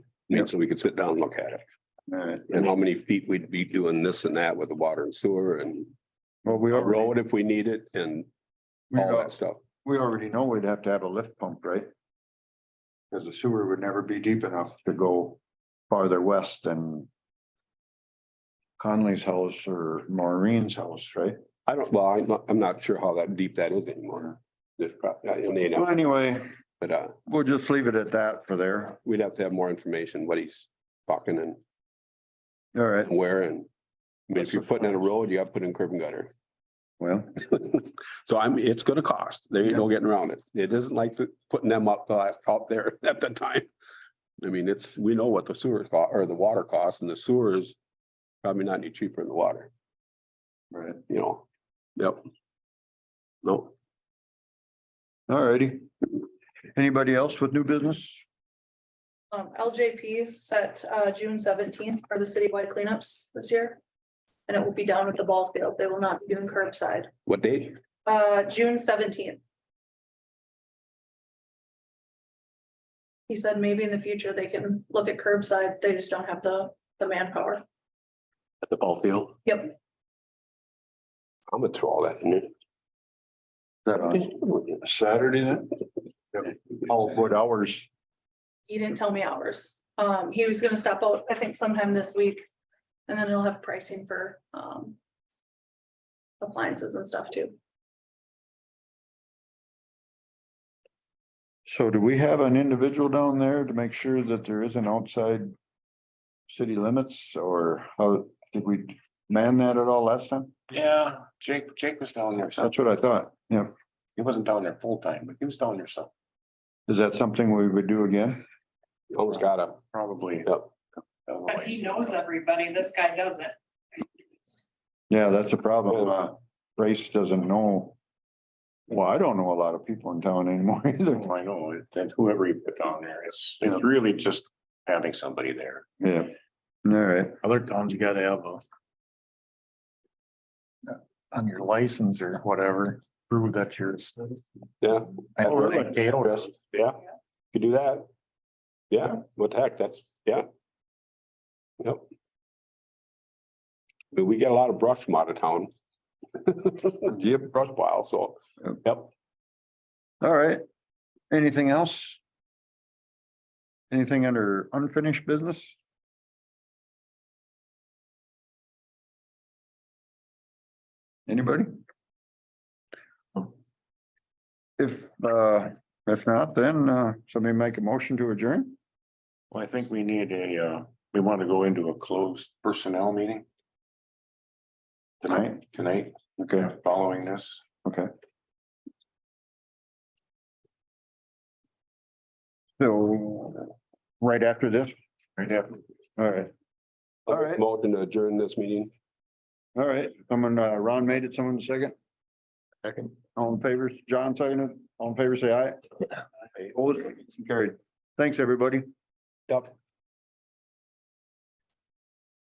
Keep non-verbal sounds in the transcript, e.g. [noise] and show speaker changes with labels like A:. A: mean, so we could sit down and look at it.
B: Alright,
A: And how many feet we'd be doing this and that with the water and sewer and
B: well, we
A: a
B: already,
A: road if we need it and
B: we
A: all
B: al-
A: that stuff.
B: we already know we'd have to have a lift pump, right? Cause the sewer would never be deep enough to go farther west than. Conley's house or Maureen's house, right?
A: I don't, well, I'm not, I'm not sure how that deep that is anymore. uh, There's probably, I mean,
B: Well, anyway,
A: but uh,
B: we'll just leave it at that for there.
A: we'd have to have more information, what he's talking and
B: All right,
A: where and. I mean, if you're putting in a road, you have to put in curb and gutter.
B: well,
A: So I'm, it's gonna cost. There ain't no getting around it. It isn't like the- putting them up the last top there [laughs] at the time. I mean, it's, we know what the sewer cost or the water costs and the sewer is probably not any cheaper than the water,
B: right,
A: you know? Yep. No,
B: all righty. Anybody else with new business?
C: Um, LJP set, uh, June seventeenth for the citywide cleanups this year. And it will be down at the ball field. They will not be doing curbside,
A: what day?
C: uh, June seventeenth. He said maybe in the future they can look at curbside. They just don't have the, the manpower.
A: At the ball field.
C: Yep,
A: I'm gonna throw all that in
B: That on
A: there.
B: Saturday then? Oh, what hours?
C: he didn't tell me hours. Um, he was gonna stop out, I think sometime this week. And then he'll have pricing for, um. Appliances and stuff too.
B: So do we have an individual down there to make sure that there isn't outside city limits or how, did we man that at all last time?
D: Yeah, Jake, Jake was down there, so
B: That's what I thought. Yeah.
D: he wasn't down there full time, but he was down there some,
B: Is that something we would do again?
A: Almost gotta,
D: probably. uh,
A: Yep.
E: But he knows everybody, this guy doesn't.
B: Yeah, that's a problem. Uh, Race doesn't know. Well, I don't know a lot of people in town anymore [laughs] either.
D: I know, that whoever you put down there, it's, it's really just having somebody there.
B: Yeah. All right.
F: Other towns, you gotta have a. On your license or whatever, prove that you're. a citizen.
A: yeah,
F: I
A: Oh, really?
F: think Cato does.
A: yeah, could do that. Yeah, what the heck, that's, yeah. Yep. But we get a lot of brush from out of town. [laughs] Yep, brush pile, so,
B: Yep.
A: yep,
B: All right. Anything else? Anything under unfinished business? Anybody? If, uh, if not, then, uh, somebody make a motion to adjourn?
D: Well, I think we need a, uh, we want to go into a closed personnel meeting. Tonight, tonight,
B: Okay,
D: following this.
B: okay. So, right after this,
D: Right, yeah.
B: all right. All right.
A: motion to adjourn this meeting.
B: All right, someone, uh, Ron made it, someone second? Second. All in favor, John seconded, all in favor, say aye. Opposed? Carried. Thanks, everybody.
A: Yep.